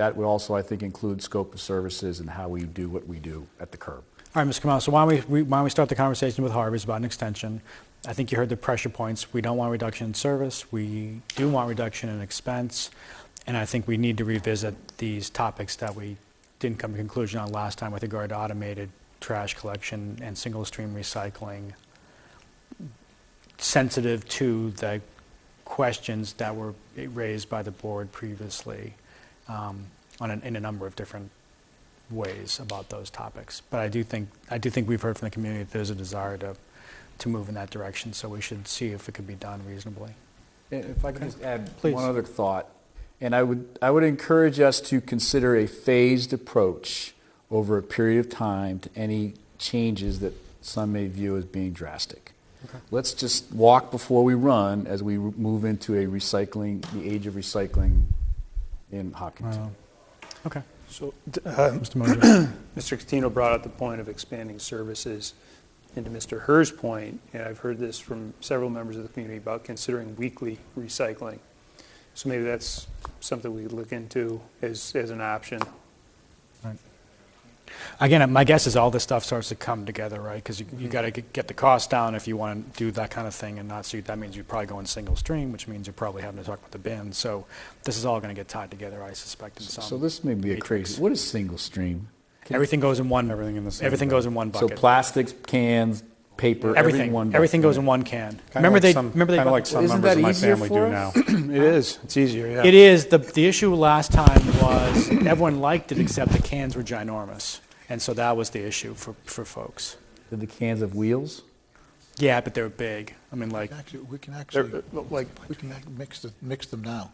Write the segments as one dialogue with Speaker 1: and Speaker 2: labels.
Speaker 1: That would also, I think, include scope of services and how we do what we do at the curb.
Speaker 2: All right, Mr. Kamala, so why don't we, we- why don't we start the conversation with Harbors about an extension? I think you heard the pressure points. We don't want reduction in service, we do want reduction in expense, and I think we need to revisit these topics that we didn't come to conclusion on last time with regard to automated trash collection and single stream recycling, sensitive to the questions that were raised by the board previously um, on, an- in a number of different ways about those topics. But I do think, I do think we've heard from the community that there's a desire to, to move in that direction, so we should see if it could be done reasonably.
Speaker 1: And If I could just add
Speaker 2: Please.
Speaker 1: one other thought, and I would, I would encourage us to consider a phased approach over a period of time to any changes that some may view as being drastic. Let's just walk before we run as we move into a recycling, the age of recycling in Hopkinton.
Speaker 2: Okay.
Speaker 3: So,
Speaker 2: Mr. Moser.
Speaker 3: Mr. Catino brought up the point of expanding services. And to Mr. Herr's point, and I've heard this from several members of the community about considering weekly recycling. So maybe that's something we could look into as, as an option.
Speaker 2: Again, my guess is all this stuff starts to come together, right? Because you,
Speaker 4: Mm-hmm.
Speaker 2: you got to get the cost down if you want to do that kind of thing and not, so that means you're probably going single stream, which means you're probably having to talk about the bin. So this is all going to get tied together, I suspect, in some.
Speaker 1: So this may be a crazy, what is single stream?
Speaker 2: Everything goes in one.
Speaker 4: Everything in the same
Speaker 2: Everything goes in one
Speaker 1: So
Speaker 2: bucket.
Speaker 1: plastics, cans, paper, everything.
Speaker 2: Everything, everything goes in one can. Remember they, remember they.
Speaker 4: Kind of like some
Speaker 1: Isn't
Speaker 4: members
Speaker 1: that
Speaker 4: of my
Speaker 1: easier
Speaker 4: family
Speaker 1: for
Speaker 4: do now.
Speaker 1: us?
Speaker 3: It is, it's easier, yeah.
Speaker 2: It is, the, the issue last time was, everyone liked it except the cans were ginormous. And so that was the issue for, for folks.
Speaker 1: Did the cans of wheels?
Speaker 2: Yeah, but they were big. I mean, like,
Speaker 5: Actually, we can actually, like, we can act- mix, the- mix them now.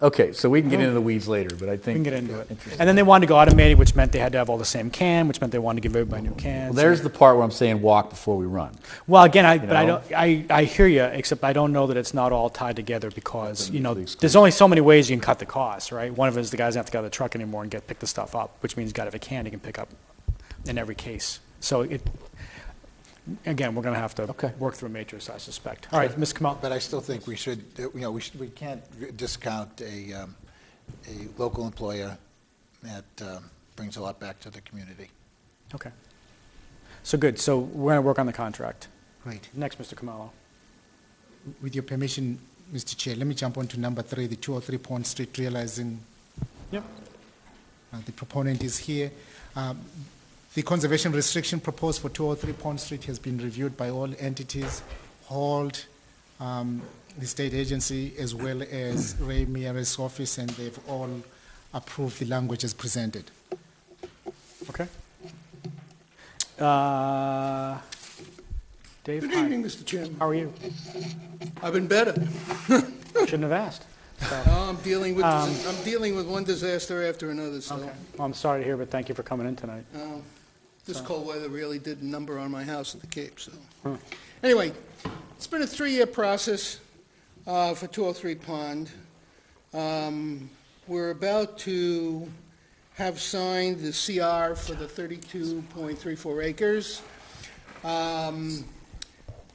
Speaker 1: Okay, so we can get into the weeds later, but I think.
Speaker 2: Uh-huh. we can get into it. And then they wanted to go automated, which meant they had to have all the same can, which meant they wanted to give everybody new
Speaker 1: Well,
Speaker 2: cans.
Speaker 1: there's the part where I'm saying walk before we run.
Speaker 2: Well, again, I, but I
Speaker 1: know?
Speaker 2: don't, I, I hear you, except I don't know that it's not all tied together because, you know,
Speaker 1: mutually
Speaker 2: there's only so many ways you can cut the cost, right? One of it is the guys don't have to go to the truck anymore and get, pick the stuff up, which means you gotta have a can you can pick up in every case. So it, again, we're gonna have
Speaker 1: Okay.
Speaker 2: to work through a matrix, I suspect. All right, Ms. Kamal,
Speaker 5: But I still think we should, uh, you know, we should, we can't discount a, um, a local employer that um, brings a lot back to the community.
Speaker 2: okay. So good, so we're gonna work on the contract.
Speaker 6: Right.
Speaker 2: Next, Mr. Kamalo.
Speaker 6: With your permission, Mr. Chair, let me jump on to number three, the 203 Pond Street, realizing
Speaker 2: Yep.
Speaker 6: uh, the proponent is here. Um, The conservation restriction proposed for 203 Pond Street has been reviewed by all entities, HALT, um, the state agency, as well as Ray Mieres' office, and they've all approved the language as presented.
Speaker 2: Okay. Uh, Dave,
Speaker 7: Good
Speaker 2: hi,
Speaker 7: evening, Mr. Chairman.
Speaker 2: how are you?
Speaker 7: I've been better.
Speaker 2: Shouldn't have asked.
Speaker 7: Now I'm dealing with, I'm dealing with one disaster after another, so
Speaker 2: Well, I'm sorry to hear, but thank you for coming in tonight.
Speaker 7: this cold weather really did a number on my house at the Cape, so. Anyway, it's been a three-year process uh, for 203 Pond. Um, We're about to have signed the CR for the 32.34 acres. Um,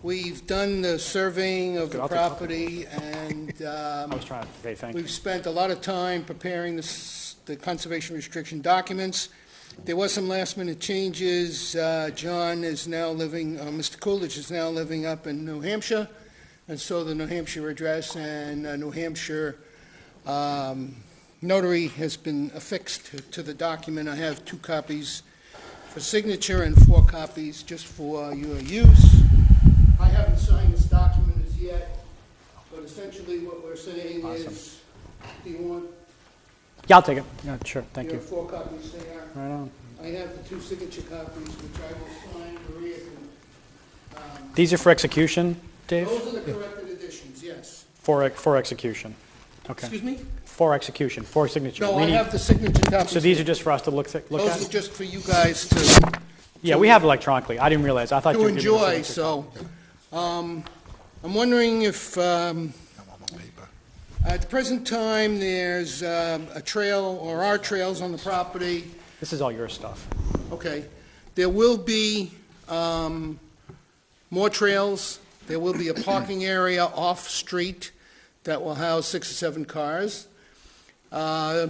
Speaker 7: We've done the surveying of the
Speaker 2: I'll take a couple.
Speaker 7: property, and um,
Speaker 2: I was trying to say thank you.
Speaker 7: We've spent a lot of time preparing the s- the conservation restriction documents. There was some last-minute changes. Uh, John is now living, uh, Mr. Coolidge is now living up in New Hampshire, and so the New Hampshire address and uh, New Hampshire um, notary has been affixed to- to the document. I have two copies for signature and four copies just for your use. I haven't signed this document as yet, but essentially what we're saying is, do you want
Speaker 2: Yeah, I'll take it. Yeah, sure, thank you.
Speaker 7: your four copies there?
Speaker 2: Right on.
Speaker 7: I have the two signature copies, which I will sign, Maria can,
Speaker 2: These are for execution, Dave?
Speaker 7: those are the corrected additions, yes.
Speaker 2: For, ex- for execution. Okay.
Speaker 7: Excuse me?
Speaker 2: For execution, for signature.
Speaker 7: No,
Speaker 2: We
Speaker 7: I
Speaker 2: need-
Speaker 7: have the signature copies.
Speaker 2: So these are just for us to look, thi- look
Speaker 7: Those are
Speaker 2: at?
Speaker 7: just for you guys to,
Speaker 2: Yeah, we have electronically. I didn't realize. I thought you
Speaker 7: to
Speaker 2: were giving us
Speaker 7: enjoy,
Speaker 2: signature.
Speaker 7: so, um, I'm wondering if, um, at the present time, there's, um, a trail, or are trails on the property,
Speaker 2: This is all your stuff.
Speaker 7: Okay. There will be um, more trails. There will be a parking area off-street that will house six or seven cars. Uh,